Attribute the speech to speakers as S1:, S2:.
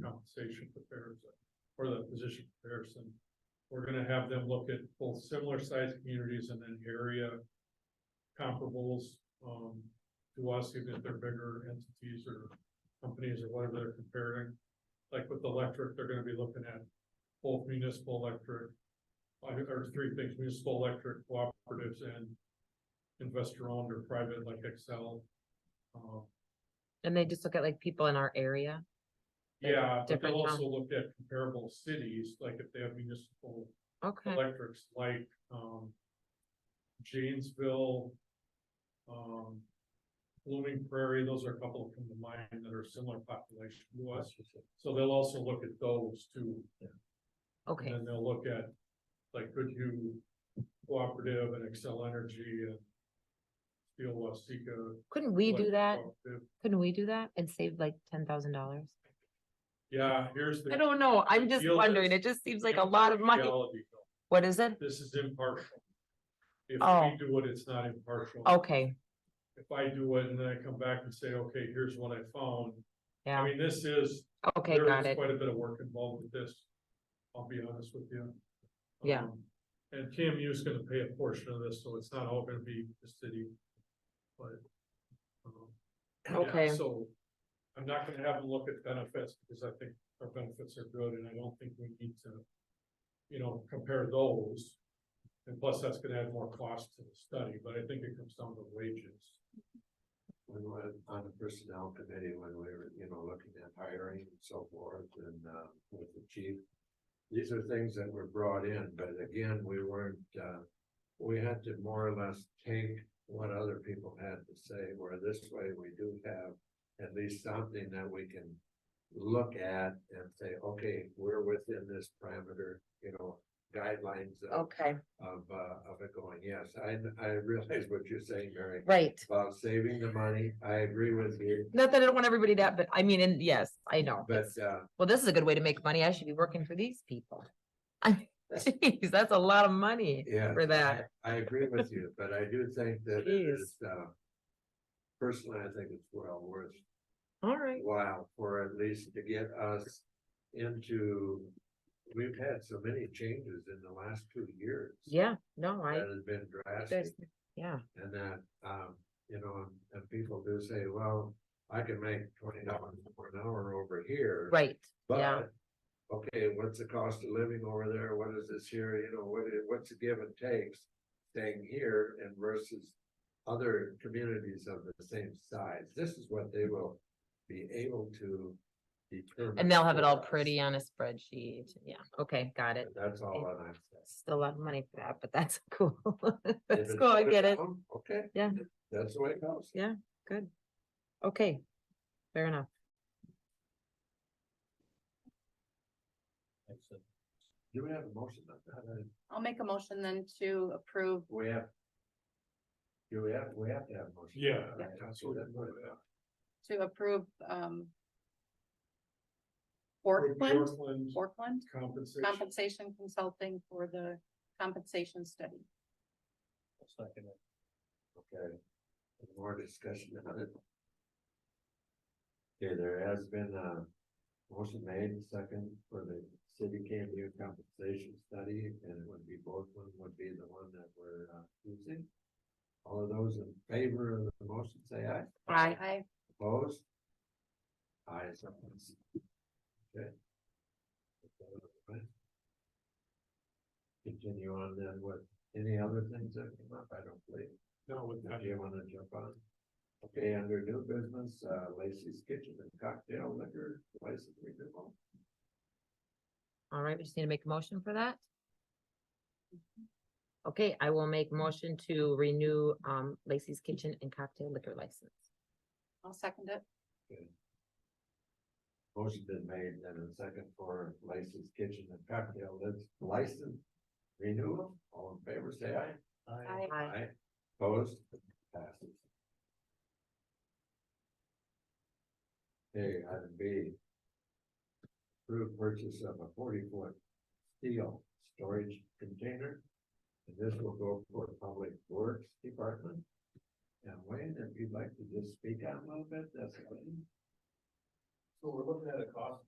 S1: compensation comparison, or the position comparison. We're gonna have them look at both similar sized communities and then area comparables, um, to us, even if they're bigger entities or companies or whatever they're comparing. Like with electric, they're gonna be looking at both municipal electric, I think there's three things, municipal electric cooperatives and investor owned or private like Excel. Um,
S2: And they just look at like people in our area. Like
S1: yeah, but
S2: different
S1: they'll
S2: town-
S1: also look at comparable cities, like if they have municipal
S2: Okay,
S1: electrics, like, um. Janesville. Um. Blooming Prairie, those are a couple that come to mind that are similar population to us, so they'll also look at those too. And
S2: okay,
S1: then they'll look at, like, could you cooperative and Excel Energy and. Steel Waseca.
S2: couldn't we do
S1: Electric
S2: that?
S1: Cooperative.
S2: Couldn't we do that and save like ten thousand dollars?
S1: Yeah, here's the.
S2: I don't know, I'm just
S1: Feel
S2: wondering,
S1: this.
S2: it just seems like a lot of money.
S1: Reality, though.
S2: What is it?
S1: This is impartial. If
S2: Oh.
S1: we do it, it's not impartial.
S2: Okay,
S1: If I do it and then I come back and say, okay, here's what I found, I
S2: yeah,
S1: mean, this is,
S2: okay,
S1: there
S2: got
S1: is
S2: it,
S1: quite a bit of work involved with this. I'll be honest with you.
S2: Yeah.
S1: Um, And KMU is gonna pay a portion of this, so it's not all gonna be the city. But. um, yeah,
S2: Okay.
S1: So I'm not gonna have them look at benefits because I think our benefits are good and I don't think we need to, you know, compare those. And plus, that's gonna add more cost to the study, but I think it comes down to wages.
S3: We went on the personnel committee when we were, you know, looking at hiring and so forth and, uh, with the chief. These are things that were brought in, but again, we weren't, uh, we had to more or less take what other people had to say, where this way we do have at least something that we can look at and say, okay, we're within this parameter, you know, guidelines of,
S2: okay,
S3: of, uh, of it going, yes, I, I realize what you're saying, Mary
S2: right.
S3: about saving the money. I agree with you,
S2: Not that I don't want everybody to, have, but I mean, and yes, I know.
S3: but
S2: it's-
S3: uh,
S2: Well, this is a good way to make money, I should be working for these people. I, geez, that's a lot of money
S3: yeah,
S2: for that,
S3: I agree with you, but I do think that it
S2: Jeez.
S3: is uh. Personally, I think it's well worth
S2: all right,
S3: while for at least to get us into. We've had so many changes in the last two years.
S2: yeah, no, I,
S3: That has been drastic.
S2: there's- yeah,
S3: And that, um, you know, and people do say, well, I can make twenty dollars more an hour over here.
S2: right, Yeah.
S3: But, okay, what's the cost of living over there? What is this here? You know, what, i- what's the give and takes staying here and versus other communities of the same size? This is what they will be able to determine.
S2: and they'll have it all
S3: for us.
S2: pretty on a spreadsheet, yeah, okay, got it.
S3: That's all that I'm saying.
S2: Still a lot of money for that, but that's cool,
S3: If
S2: that's
S3: it's
S2: cool, I
S3: put
S2: get it,
S3: down, Okay.
S2: Yeah.
S3: That's the way it goes.
S2: Yeah. good, okay, fair enough.
S3: Do we have a motion on that? Uh,
S4: I'll make a motion then to approve.
S3: We have. Do we have, we have to have a motion.
S1: Yeah.
S3: Right,
S1: that's
S3: okay,
S1: what
S3: that's what it
S1: we're-
S3: is.
S4: to approve, um. Orkland,
S1: Portland
S4: Orkland
S1: compensation.
S4: Compensation Consulting for the compensation study.
S3: Okay. Any More discussion on it. Okay, there has been a motion made and second for the city KMU compensation study, and it would be both one would be the one that we're uh, using. All of those in favor of the motion, say aye.
S2: Aye.
S4: I,
S3: Opposed? Ayes have it. Okay. Continue on then with any other things that come up, I don't believe.
S1: No, with
S3: Now,
S1: that,
S3: do you wanna jump on? Okay, under new business, uh, Lacey's Kitchen and Cocktail Liquor License Renewal.
S2: All right, we just need to make a motion for that. Okay, I will make motion to renew um Lacey's Kitchen and Cocktail Liquor License.
S4: I'll second it.
S3: Motion been made and a second for Lacey's Kitchen and Cocktail Lic- License Renewal. All in favor, say aye.
S4: Aye.
S2: Aye.
S3: Aye. Opposed? Passes. Okay, item B. Approved purchase of a forty-foot steel storage container. And this will go for Public Works Department. And Wayne, if you'd like to just speak out a little bit, that's fine.
S5: So we're looking at a cost